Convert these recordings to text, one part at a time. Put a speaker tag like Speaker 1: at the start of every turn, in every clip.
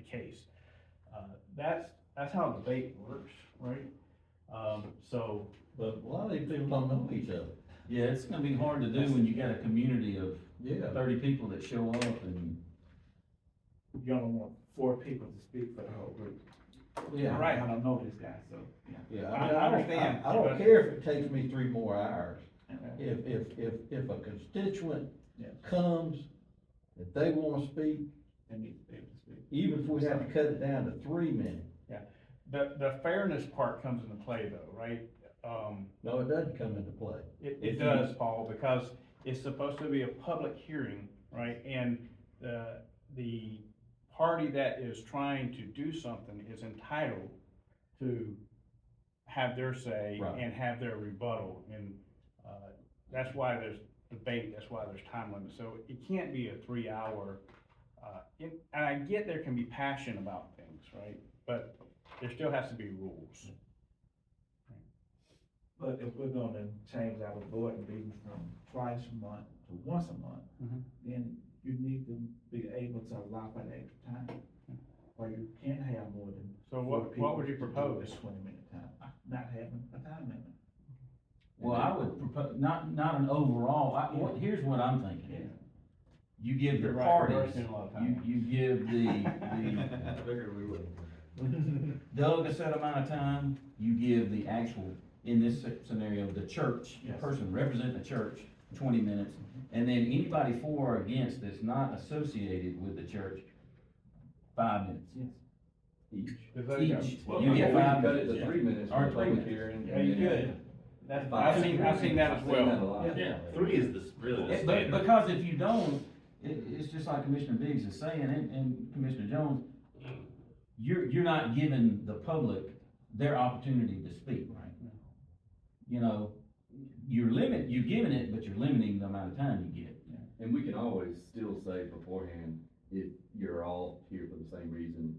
Speaker 1: case. Uh, That's, that's how debate works, right? Um, So,
Speaker 2: But a lot of these people don't know each other.
Speaker 3: Yeah, it's gonna be hard to do when you got a community of
Speaker 2: Yeah.
Speaker 3: thirty people that show up and,
Speaker 4: You only want four people to speak for the whole group.
Speaker 2: Yeah.
Speaker 4: Right, I don't know this guy, so, yeah.
Speaker 2: Yeah,
Speaker 4: I-
Speaker 2: I mean,
Speaker 4: I
Speaker 2: I
Speaker 4: understand,
Speaker 2: don't, I
Speaker 4: but-
Speaker 2: don't care if it takes me three more hours.
Speaker 4: Okay.
Speaker 2: If, if, if, if a constituent
Speaker 4: Yeah.
Speaker 2: comes, if they wanna speak,
Speaker 4: They need to be able to speak.
Speaker 2: even if we have to cut it down to three minutes,
Speaker 1: the, the fairness part comes into play though, right? Um,
Speaker 2: no, it doesn't come into play.
Speaker 1: It,
Speaker 2: If
Speaker 1: it
Speaker 2: you-
Speaker 1: does, Paul, because it's supposed to be a public hearing, right? And the, the party that is trying to do something is entitled to have their say
Speaker 2: Right.
Speaker 1: and have their rebuttal. And, uh, that's why there's debate, that's why there's time limit. So it can't be a three-hour, uh, and, and I get there can be passion about things, right? But there still has to be rules.
Speaker 4: But if we're gonna change our board meetings from twice a month to once a month,
Speaker 1: Mhm.
Speaker 4: then you need to be able to allow for the extra time. Or you can't have more than.
Speaker 1: So
Speaker 4: four
Speaker 1: what, what would you
Speaker 4: people to do a
Speaker 1: propose?
Speaker 4: Twenty minute time, not having a time limit.
Speaker 3: well, I would propose, not, not an overall, I, what, here's what I'm thinking. You give your
Speaker 1: You're right, we're
Speaker 3: parties,
Speaker 1: wasting a lot of
Speaker 3: you,
Speaker 1: time.
Speaker 3: you give the, the
Speaker 2: Figured we would.
Speaker 3: Doug a set amount of time, you give the actual, in this scenario, the church, the
Speaker 4: Yes.
Speaker 3: person representing the church, twenty minutes.
Speaker 1: Mm-hmm.
Speaker 3: And then anybody for or against that's not associated with the church, five minutes.
Speaker 4: Yes.
Speaker 3: Each.
Speaker 1: Does that-
Speaker 3: Each,
Speaker 5: Well,
Speaker 3: you get five
Speaker 5: cut it
Speaker 3: minutes.
Speaker 5: to three minutes.
Speaker 3: Or
Speaker 5: for
Speaker 3: three
Speaker 5: public
Speaker 3: minutes.
Speaker 5: hearing.
Speaker 1: Yeah, you
Speaker 5: and then-
Speaker 1: could. That's,
Speaker 5: Five.
Speaker 1: I've seen, I've seen that as
Speaker 5: I've seen that a
Speaker 1: well.
Speaker 5: lot. Yeah. Yeah.
Speaker 6: Yeah, three is the, s- really the
Speaker 3: Yeah, But,
Speaker 6: standard.
Speaker 3: because if you don't, it, it's just like Commissioner Biggs is saying, and, and Commissioner Jones, you're, you're not giving the public their opportunity to speak, right? You know, you're limit, you're giving it, but you're limiting the amount of time you get.
Speaker 5: And we can always still say beforehand, if you're all here for the same reason,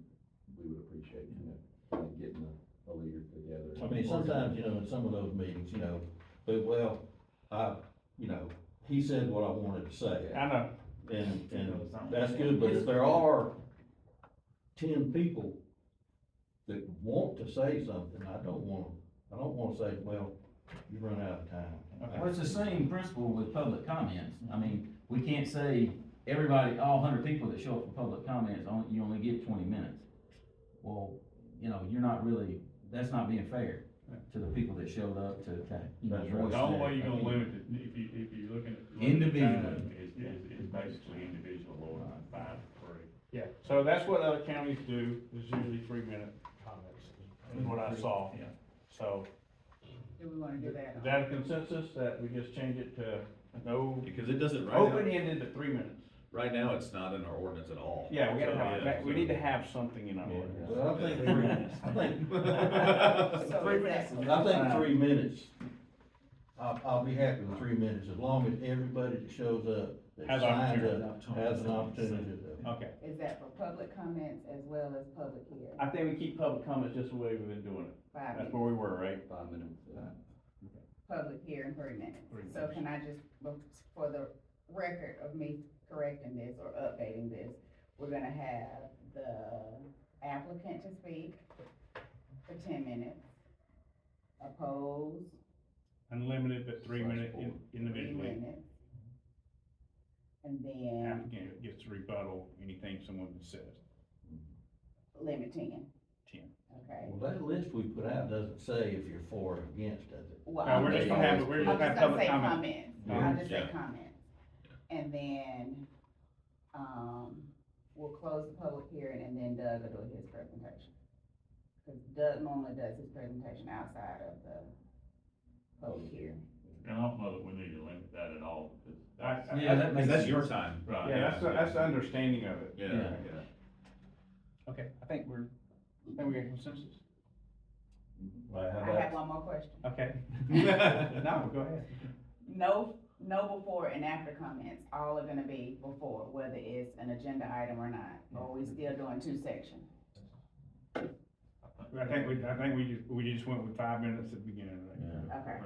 Speaker 5: we would appreciate, you know, kind of getting a, a leader together.
Speaker 2: I mean, sometimes, you know, in some of those meetings, you know, but well, I, you know, he said what I wanted to say.
Speaker 1: I know,
Speaker 2: And, and that's good, but if there are ten people that want to say something, I don't want, I don't want to say, well, you run out of time.
Speaker 3: Well, it's the same principle with public comments. I mean, we can't say everybody, all hundred people that show up for public comments, only, you only get twenty minutes. Well, you know, you're not really, that's not being fair to the people that showed up to, to, you know,
Speaker 2: That's right.
Speaker 3: voice
Speaker 6: The only way
Speaker 3: their
Speaker 6: you're gonna
Speaker 3: opinion.
Speaker 6: limit it, if you, if you're looking at.
Speaker 3: Individual.
Speaker 6: limited time, Is, is, is basically individual or five, three.
Speaker 1: yeah, so that's what other counties do, is usually three minute comments, is what I saw.
Speaker 4: Yeah.
Speaker 1: So,
Speaker 7: Do we wanna do that?
Speaker 1: is that a consensus that we just change it to no,
Speaker 6: Because it doesn't,
Speaker 1: open ended to three minutes?
Speaker 6: right now, it's not in our ordinance at all.
Speaker 1: Yeah, we gotta have, we need to have something in our ordinance.
Speaker 2: But I think three minutes, I think,
Speaker 7: So is that-
Speaker 2: I think three minutes, I'll, I'll be happy with three minutes, as long as everybody that shows up, that
Speaker 1: Has
Speaker 2: signs
Speaker 1: opportunity.
Speaker 2: up, has an opportunity to.
Speaker 1: Okay,
Speaker 7: Is that for public comments as well as public hearing?
Speaker 1: I think we keep public comments just the way we've been doing it.
Speaker 7: Five
Speaker 1: That's
Speaker 7: minutes,
Speaker 1: where we were, right?
Speaker 5: Five minutes. uh,
Speaker 7: public hearing, three minutes.
Speaker 1: Three
Speaker 7: So can I just, well, for the record of me correcting this or updating this, we're gonna have the applicant to speak for ten minutes. Opposed,
Speaker 1: Unlimited, but three minute in-
Speaker 7: three
Speaker 1: individually.
Speaker 7: minutes. And then
Speaker 1: Applicant gets to rebuttal anything someone says.
Speaker 7: limit ten.
Speaker 1: 10.
Speaker 7: Okay.
Speaker 2: Well, that list we put out doesn't say if you're for or against, does it?
Speaker 7: Well,
Speaker 1: No,
Speaker 7: I'm
Speaker 1: we're
Speaker 7: just
Speaker 1: just
Speaker 7: gonna
Speaker 1: gonna have, we're just gonna have public
Speaker 7: say
Speaker 1: comment. Mm-hmm.
Speaker 7: comments, I'll
Speaker 1: Comments,
Speaker 7: just say comments. And then, um, we'll close the public hearing and then Doug will do his presentation. Cause Doug normally does his presentation outside of the public hearing.
Speaker 6: And I don't know that we need to limit that at all, because
Speaker 1: I-
Speaker 6: that's,
Speaker 1: I-
Speaker 3: Yeah, that makes.
Speaker 6: that's your time. Right.
Speaker 1: Yeah, that's, the- that's the understanding of it.
Speaker 6: Yeah,
Speaker 3: Yeah.
Speaker 6: yeah.
Speaker 1: Okay, I think we're, I think we got consensus.
Speaker 2: Well, how
Speaker 7: I
Speaker 2: about-
Speaker 7: have one more question.
Speaker 1: Okay. No, go ahead.
Speaker 7: No, no before and after comments, all are gonna be before, whether it's an agenda item or not, or we still doing two sections.
Speaker 1: I think we, I think we just, we just went with five minutes at the beginning, right?
Speaker 3: Yeah.
Speaker 7: Okay,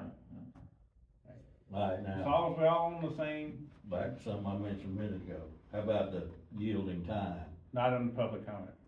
Speaker 2: All right,
Speaker 1: It's
Speaker 2: now,
Speaker 1: all, we're all on the same,
Speaker 2: back to something I mentioned a minute ago, how about the yielding time?
Speaker 1: not on the public comment.